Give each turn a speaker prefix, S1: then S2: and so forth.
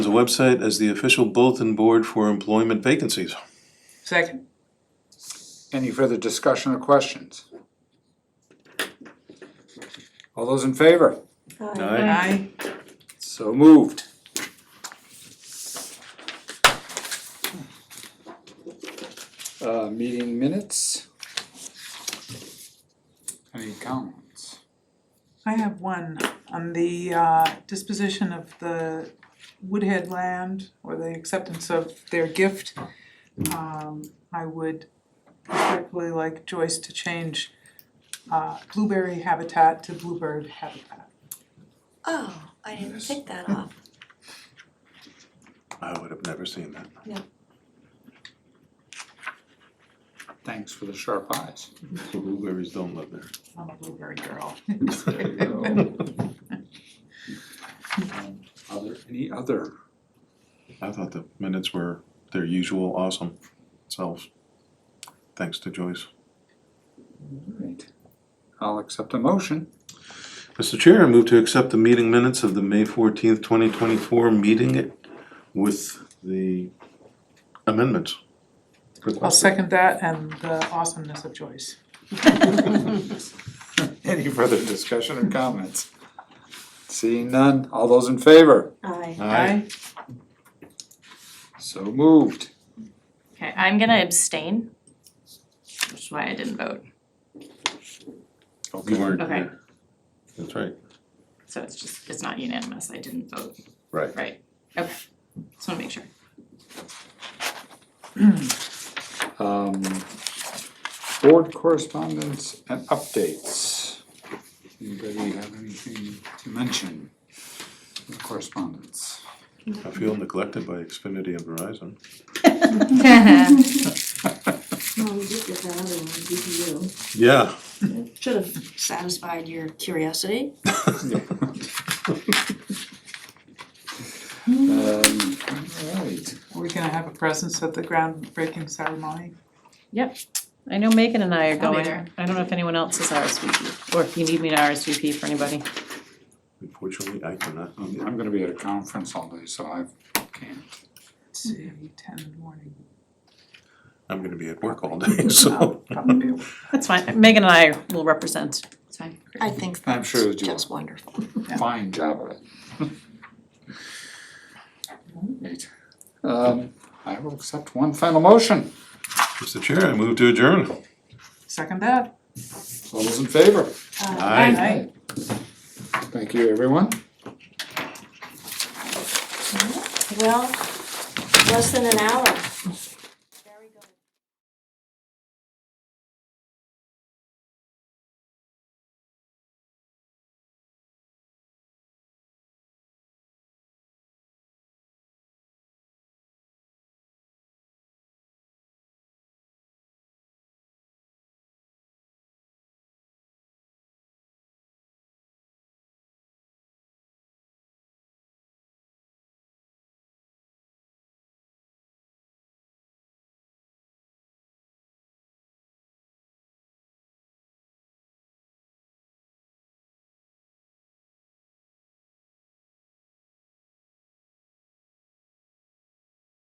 S1: the website as the official bulletin board for employment vacancies.
S2: Second.
S3: Any further discussion or questions? All those in favor?
S1: Aye.
S2: Aye.
S3: So moved. Uh, meeting minutes? Any comments?
S4: I have one on the uh, disposition of the Woodhead land or the acceptance of their gift. Um, I would respectfully like Joyce to change uh, blueberry habitat to bluebird habitat.
S5: Oh, I didn't pick that off.
S1: I would have never seen that.
S3: Thanks for the sharp eyes.
S1: Blueberries don't live there.
S4: I'm a blueberry girl.
S3: Um, Other, any other?
S1: I thought the minutes were their usual awesome selves. Thanks to Joyce.
S3: Alright, I'll accept a motion.
S1: Mr. Chair, I move to accept the meeting minutes of the May fourteenth, twenty twenty-four meeting with the amendments.
S4: I'll second that and the awesomeness of Joyce.
S3: Any further discussion or comments? Seeing none, all those in favor?
S5: Aye.
S1: Aye.
S3: So moved.
S6: Okay, I'm gonna abstain, which is why I didn't vote,
S1: You
S3: Okay,
S1: weren't
S6: Okay.
S1: there. That's right.
S6: so it's just, it's not unanimous, I didn't vote,
S1: Right.
S6: right? Okay, just wanna make sure.
S3: um, board correspondence and updates. Anybody have anything to mention? in Correspondence.
S1: I feel neglected by Xfinity and Verizon.
S5: Well, we did get that other one, DPU.
S1: Yeah.
S5: Should have satisfied your curiosity.
S3: Um, alright,
S4: Are we gonna have a presence at the groundbreaking ceremony?
S7: I know Megan and I are
S6: I'll be
S7: going,
S6: there.
S7: I don't know if anyone else is RSVP, or if you need me to RSVP for anybody.
S1: Unfortunately, I cannot. be there.
S3: Um, I'm gonna be at a conference all day, so I can't.
S4: It's ten in the morning.
S1: I'm gonna be at work all day, so.
S4: Probably.
S7: That's fine, Megan and I will represent.
S6: It's fine.
S5: I think
S3: I'm
S5: that's
S3: sure you
S5: just wonderful.
S3: fine job of it. Alright, um, I will accept one final motion.
S1: Mr. Chair, I move to adjourn.
S4: Second that.
S3: All those in favor?
S1: Aye.
S3: Thank you, everyone.
S5: Well, less than an hour.